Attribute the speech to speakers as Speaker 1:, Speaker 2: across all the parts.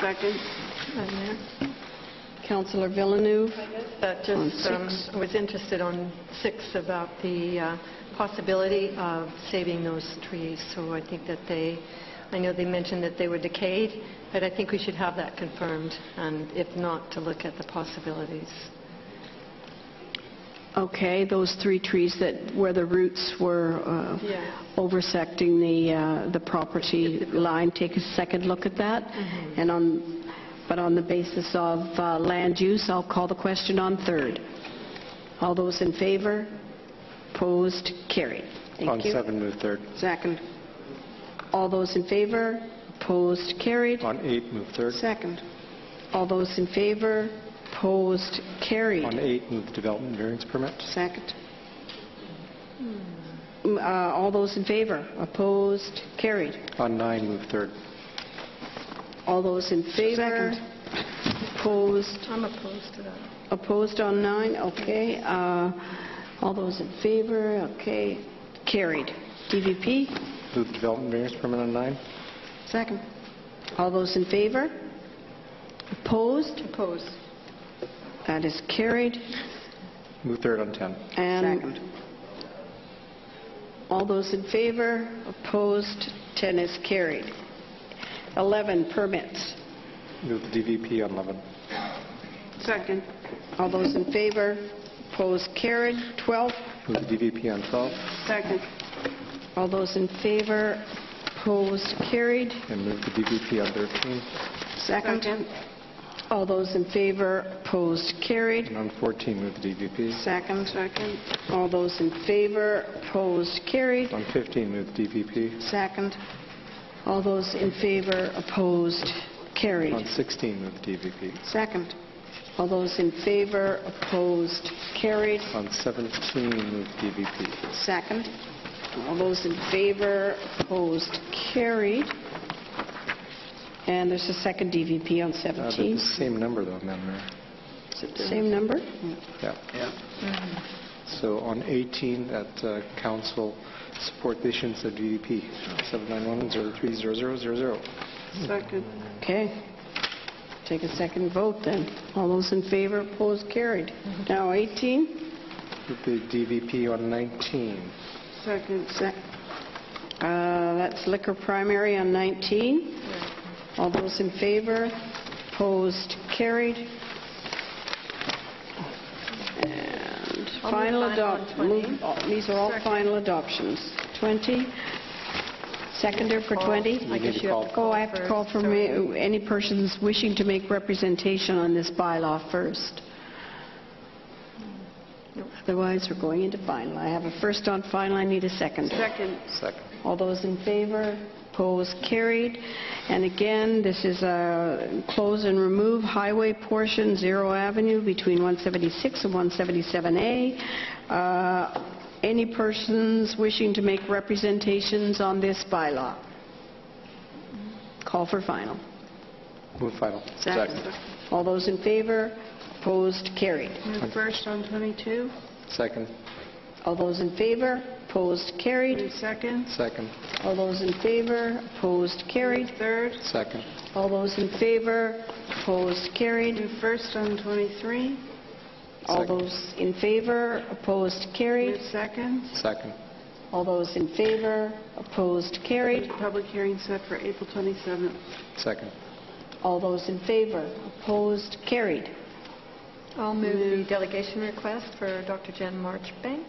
Speaker 1: second.
Speaker 2: on there. Counselor Villeneuve,
Speaker 3: But just um, was interested on six about the uh, possibility of saving those trees. So I think that they, I know they mentioned that they were decayed, but I think we should have that confirmed, and if not, to look at the possibilities.
Speaker 2: okay, those three trees that, where the roots were uh,
Speaker 3: Yes.
Speaker 2: oversecting the, uh, the property line, take a second look at that.
Speaker 1: Mm-hmm.
Speaker 2: And on, but on the basis of uh, land use, I'll call the question on third. All those in favor? Opposed? Carried.
Speaker 4: On
Speaker 2: Thank you.
Speaker 4: seven, move third.
Speaker 1: Second.
Speaker 2: All those in favor? Opposed? Carried.
Speaker 4: On eight, move third.
Speaker 1: Second.
Speaker 2: All those in favor? Opposed?
Speaker 4: On
Speaker 2: Carried.
Speaker 4: eight, move the development variance permit.
Speaker 1: Second.
Speaker 2: Mm, uh, All those in favor? Opposed? Carried.
Speaker 4: On nine, move third.
Speaker 2: All those in favor?
Speaker 1: Second.
Speaker 2: Opposed?
Speaker 3: I'm opposed to that.
Speaker 2: Opposed on nine? Okay. Uh, All those in favor? Okay. Carried. DVP?
Speaker 4: Move the development variance permit on nine.
Speaker 1: Second.
Speaker 2: All those in favor? Opposed?
Speaker 3: Opposed.
Speaker 2: That is carried.
Speaker 4: Move third on 10.
Speaker 2: And
Speaker 1: Second.
Speaker 2: all those in favor? Opposed? 10 is carried. 11, permits.
Speaker 4: Move the DVP on 11.
Speaker 1: Second.
Speaker 2: All those in favor? Opposed? Carried. 12,
Speaker 4: Move the DVP on 12.
Speaker 1: Second.
Speaker 2: all those in favor? Opposed? Carried.
Speaker 4: And move the DVP on 13.
Speaker 1: Second.
Speaker 2: All those in favor? Opposed? Carried.
Speaker 4: And on 14, move the DVP.
Speaker 2: Second.
Speaker 1: Second.
Speaker 2: All those in favor? Opposed? Carried.
Speaker 4: On 15, move the DVP.
Speaker 2: Second. All those in favor? Opposed?
Speaker 4: On
Speaker 2: Carried.
Speaker 4: 16, move the DVP.
Speaker 1: Second.
Speaker 2: All those in favor? Opposed? Carried.
Speaker 4: On 17, move the DVP.
Speaker 2: Second. All those in favor, opposed, carried. And there's a second DVP on
Speaker 4: Uh, They're
Speaker 2: 17.
Speaker 4: the same number, though, Madam Mayor.
Speaker 2: Is it the Same number?
Speaker 4: Yeah. Mm-hmm. So on 18, that uh, council support the issuance of DVP 791-030000.
Speaker 1: Second.
Speaker 2: Okay. Take a second vote then. All those in favor, opposed, carried. Now 18,
Speaker 4: Move the DVP on 19.
Speaker 1: Second.
Speaker 2: Sec- uh, that's liquor primary on 19. All those in favor, opposed, carried. And
Speaker 3: I'll move
Speaker 2: final
Speaker 3: final on
Speaker 2: adoption.
Speaker 3: 20.
Speaker 2: These are all
Speaker 3: Second.
Speaker 2: final adoptions. 20, seconder for
Speaker 3: Call.
Speaker 2: 20?
Speaker 3: I guess you have to
Speaker 2: Oh,
Speaker 3: call
Speaker 2: I have to call
Speaker 3: first,
Speaker 2: for
Speaker 3: sorry.
Speaker 2: ma- any persons wishing to make representation on this bylaw first. Otherwise, we're going into final. I have a first on final, I need a second.
Speaker 1: Second.
Speaker 4: Second.
Speaker 2: All those in favor, opposed, carried. And again, this is a close and remove highway portion, Zero Avenue, between 176 and 177A. Uh, Any persons wishing to make representations on this bylaw? Call for final.
Speaker 4: Move final.
Speaker 1: Second.
Speaker 2: All those in favor, opposed, carried.
Speaker 1: Move first on 22.
Speaker 4: Second.
Speaker 2: All those in favor, opposed, carried.
Speaker 1: Move second.
Speaker 4: Second.
Speaker 2: All those in favor, opposed, carried.
Speaker 1: Third.
Speaker 4: Second.
Speaker 2: All those in favor, opposed, carried.
Speaker 1: Move first on 23.
Speaker 2: All
Speaker 4: Second.
Speaker 2: those in favor, opposed,
Speaker 1: Move
Speaker 2: carried.
Speaker 1: second.
Speaker 4: Second.
Speaker 2: All those in favor, opposed, carried.
Speaker 1: Public hearing set for April 27th.
Speaker 4: Second.
Speaker 2: All those in favor, opposed, carried.
Speaker 3: I'll move the delegation request for Dr. Jen Marchbank.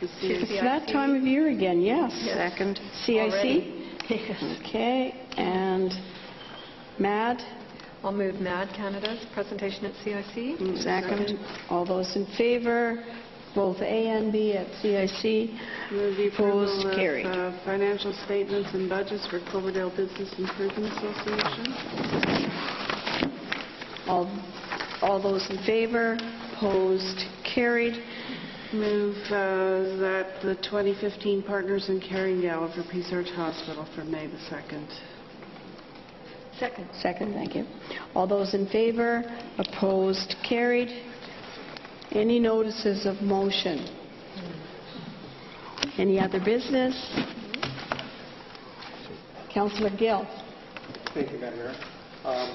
Speaker 1: To see
Speaker 3: Yes.
Speaker 1: if-
Speaker 2: It's that time of year again, yes.
Speaker 1: Second.
Speaker 2: CIC?
Speaker 3: Already. Yes.
Speaker 2: Okay, and MAD?
Speaker 3: I'll move MAD Canada's presentation at CIC.
Speaker 2: Mm, Second. All those in favor, both A and B at CIC?
Speaker 1: Move the approval
Speaker 2: Opposed,
Speaker 1: of,
Speaker 2: carried.
Speaker 1: uh, financial statements and budgets for Cloverdale Business Improvement Association.
Speaker 2: All all those in favor, opposed, carried.
Speaker 1: Move uh, that the 2015 Partners in Caring Gala for Peace Arch Hospital for May the 2nd.
Speaker 3: Second.
Speaker 2: Second, thank you. All those in favor, opposed, carried. Any notices of motion? Any other business? Councillor Gill?
Speaker 4: Thank you, Madam Mayor. Um,